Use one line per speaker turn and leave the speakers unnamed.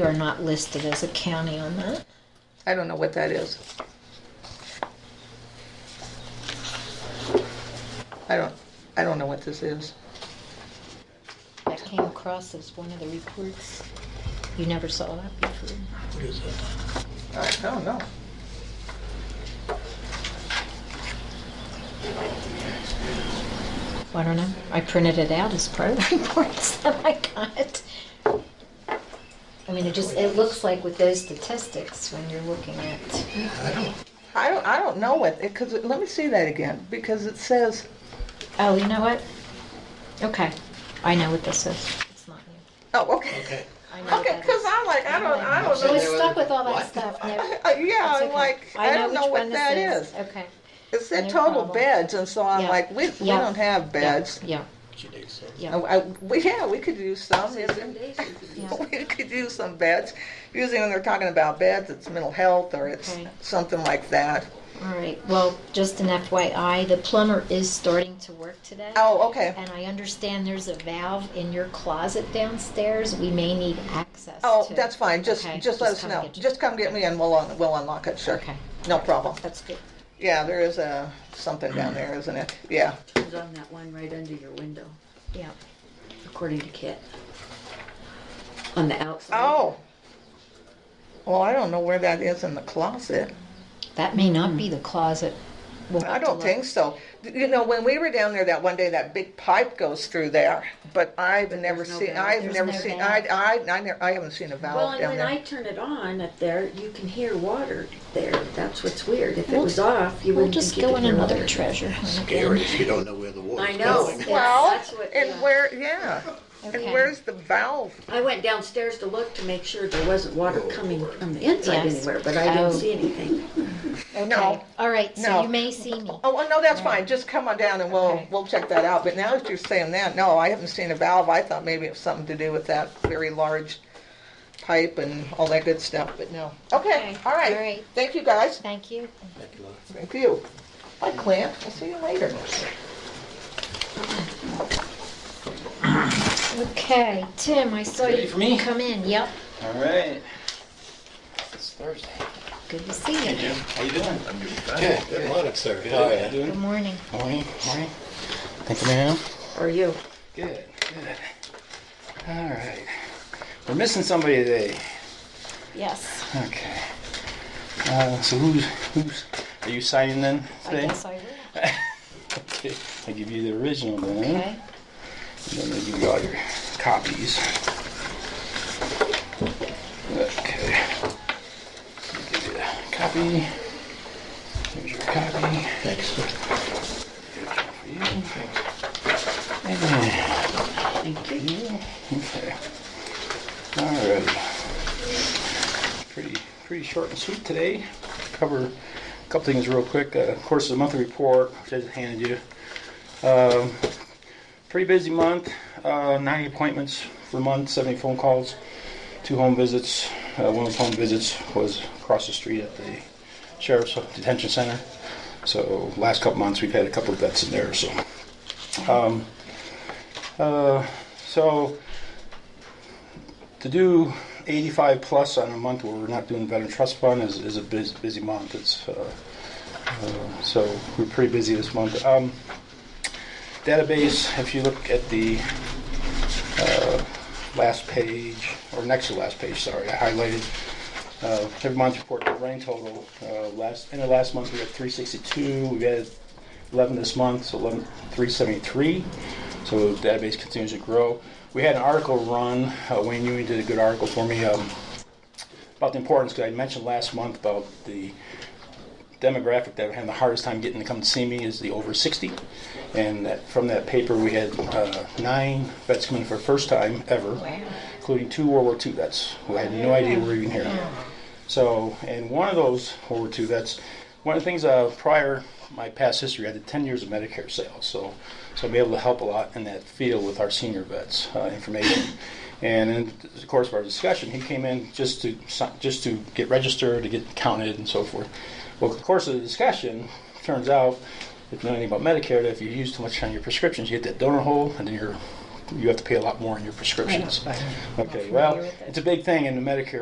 You are not listed as a county on that.
I don't know what that is. I don't, I don't know what this is.
That came across as one of the reports. You never saw that before.
What is that?
I don't know.
I don't know. I printed it out as part of the reports that I got. I mean, it just, it looks like with those statistics, when you're looking at,
I don't,
I don't, I don't know what, because, let me see that again, because it says,
oh, you know what? Okay, I know what this is. It's not new.
oh, okay.
okay.
I know what
Okay,
that
because
is.
I'm like, I don't, I don't
I
know.
was stuck with all that stuff. No,
Uh, Yeah,
it's
I'm
okay.
like, I don't
which
know
one
what
this
that is.
Okay.
It said
No
total
problem.
beds, and so I'm
Yeah.
like, we, we
Yeah.
don't have beds.
Yeah,
She needs some.
yeah.
Uh, I- we- Yeah, we could use some. using-
Yeah.
We could use some beds. Usually when they're talking about beds, it's mental health or it's
Okay.
something like that.
All right, well, just an FYI, the plumber is starting to work today.
Oh, okay.
And I understand there's a valve in your closet downstairs. We may need access
Oh,
to.
that's fine. Just,
Okay,
just let us
come
know.
get you.
Just come get me and we'll, un- we'll unlock it, sure.
Okay,
No problem.
that's good.
Yeah, there is a, something down there, isn't it? Yeah.
It's on that one right under your window,
Yeah.
according to Kit. On the outside.
Oh. Well, I don't know where that is in the closet.
That may not be the closet. We'll
I
have to
don't
look.
think so. You know, when we were down there that one day, that big pipe goes through there, but I've never
there's no
seen,
valve.
I've
There's
never
no
seen, I,
valve.
I, I never, I haven't seen a
Well,
valve
and
down
when I
there.
turn it on up there, you can hear water there. That's what's weird. If it
We'll-
was off, you
We'll
wouldn't
just
think you
go
could
in
hear
another
water.
treasure. hunt
Scary
again.
if you don't know where the water's
I know.
going.
Yeah,
Well,
that's what-
and
yeah.
where, yeah, and
Okay.
where's the valve?
I went downstairs to look to make sure there wasn't
Oh,
water coming from the inside
Yes.
anywhere, but I didn't
Oh.
see anything.
No.
Okay. All right,
No.
so you may see me.
Oh, well, no, that's fine, just come on down and we'll,
Okay.
we'll check that out, but now that you're saying that, no, I haven't seen a valve, I thought maybe it was something to do with that very large pipe and all that good stuff, but no. Okay,
Okay,
all
all
right,
right.
thank you guys,
Thank you.
Thank you, Laura.
thank you. Bye, Clint, we'll see you later.
Okay, Tim, I saw
Ready
you
for me?
come in. Yep.
All right. It's Thursday.
Good to see you.
How you doing? I'm doing fine.
Yeah, good morning, sir. How are
Good.
you?
Good morning.
Morning. Morning. Thank you, ma'am.
Or you.
Good. Good. All right. We're missing somebody today.
Yes,
Okay. Uh, so who's who's are you signing then
I
today?
guess I will.
Okay. I give you the original then.
Okay.
Then they give you all your copies. Okay. Give you a copy. Here's your copy.
Thanks, sir.
For you. And then
Thank you.
you. Okay. Alright. Pretty pretty short and sweet today. Cover a couple things real quick. Uh, of course, the monthly report which I just handed you. Um, pretty busy month. Uh, 90 appointments for the month, 70 phone calls, two home visits. Uh, one of those home visits was across the street at the sheriff's detention center. So last couple months we've had a couple of vets in there. So, um, uh, so to do 85 plus on a month where we're not doing veteran trust fund is, is a busy, busy month. It's uh, uh, so we're pretty busy this month. Um, database, if you look at the uh, last page, or next to last page, sorry, I highlighted uh, every month's report, the running total. Uh, last, end of last month, we had 362. We've added 11 this month, so 11, 373. So the database continues to grow. We had an article run. Uh, Wayne Ewing did a good article for me um, about the importance, because I mentioned last month about the demographic that had the hardest time getting to come to see me is the over 60. And that, from that paper, we had uh, nine vets come in for the first time ever, including two World War II vets who had no idea we were even here. So, and one of those World War II vets, one of the things uh, prior my past history, I did 10 years of Medicare sales. So, so I'm able to help a lot in that field with our senior vets uh, information. And in the course of our discussion, he came in just to si- just to get registered, to get counted, and so forth. Well, in the course of the discussion, turns out if you know anything about Medicare, that if you use too much on your prescriptions, you hit that donut hole, and then your you have to pay a lot more on your prescriptions.
Right.
Okay, well, it's a big thing in the Medicare